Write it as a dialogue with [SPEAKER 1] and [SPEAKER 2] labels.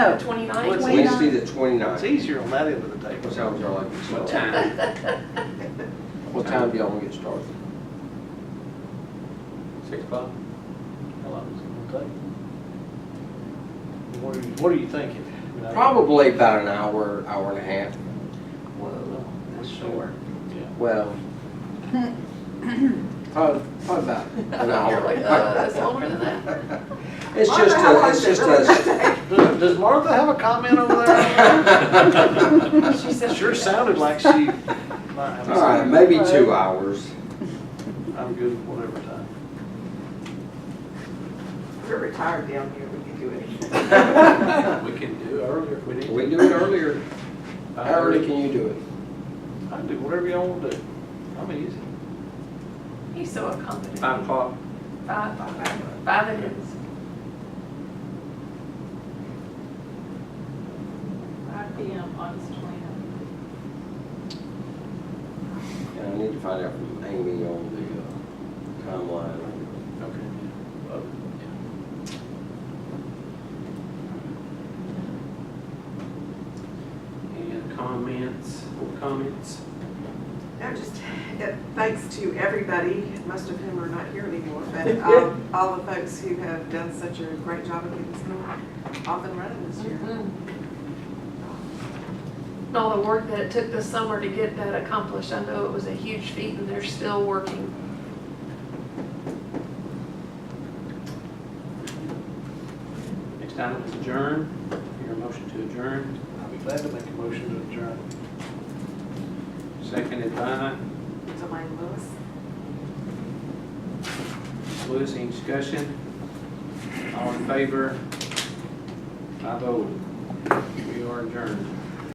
[SPEAKER 1] Oh,
[SPEAKER 2] Twenty-nine?
[SPEAKER 1] What's-
[SPEAKER 3] Wednesday the twenty-ninth.
[SPEAKER 1] It's easier on that end of the table.
[SPEAKER 3] What time would y'all like to
[SPEAKER 1] What
[SPEAKER 3] start?
[SPEAKER 2] Oh,
[SPEAKER 1] time?
[SPEAKER 3] What time do y'all want to get started?
[SPEAKER 1] Six o'clock? How long is it gonna take? What are you, what are you thinking? I mean,
[SPEAKER 3] Probably about an hour, hour and a half.
[SPEAKER 1] Well,
[SPEAKER 2] That's short.
[SPEAKER 1] yeah.
[SPEAKER 3] Well, probably, probably about an hour.
[SPEAKER 2] You're like, uh, that's longer than that.
[SPEAKER 3] It's
[SPEAKER 2] Wonder
[SPEAKER 3] just,
[SPEAKER 2] how
[SPEAKER 3] a-
[SPEAKER 2] long
[SPEAKER 3] it's
[SPEAKER 2] it
[SPEAKER 3] just
[SPEAKER 2] really
[SPEAKER 3] us.
[SPEAKER 1] Does does Martha have a comment over there?
[SPEAKER 2] She said-
[SPEAKER 1] Sure sounded like she might have.
[SPEAKER 3] All
[SPEAKER 1] a
[SPEAKER 3] right,
[SPEAKER 1] comment.
[SPEAKER 3] maybe two hours.
[SPEAKER 1] I'm good with whatever time.
[SPEAKER 4] We're retired down here, we can do anything.
[SPEAKER 5] We can do earlier if we need.
[SPEAKER 3] Can we do it earlier?
[SPEAKER 1] Uh,
[SPEAKER 3] How early can you do it?
[SPEAKER 1] I can do whatever y'all wanna do. I'm easy.
[SPEAKER 2] He's so accommodating.
[SPEAKER 5] Five o'clock.
[SPEAKER 2] Five, five, five it is.
[SPEAKER 6] Five P M, August twenty-ninth.
[SPEAKER 3] And I need to find out from Amy on the uh, timeline.
[SPEAKER 5] Okay. yeah. Oh, yeah. Any other comments, or comments?
[SPEAKER 4] I'm just, uh, thanks to everybody, most of whom are not here anymore, but um, all the folks who have done such a great job of getting this going, off and running this year.
[SPEAKER 2] And Mm-hmm. all the work that it took this summer to get that accomplished, I know it was a huge feat and they're still working.
[SPEAKER 5] Next item is adjourn. Your motion to adjourn,
[SPEAKER 1] I'll be glad to make a motion to adjourn.
[SPEAKER 5] seconded by
[SPEAKER 4] Delane Lewis.
[SPEAKER 5] Lewis. Any discussion? All in favor? Five oh. We are adjourned.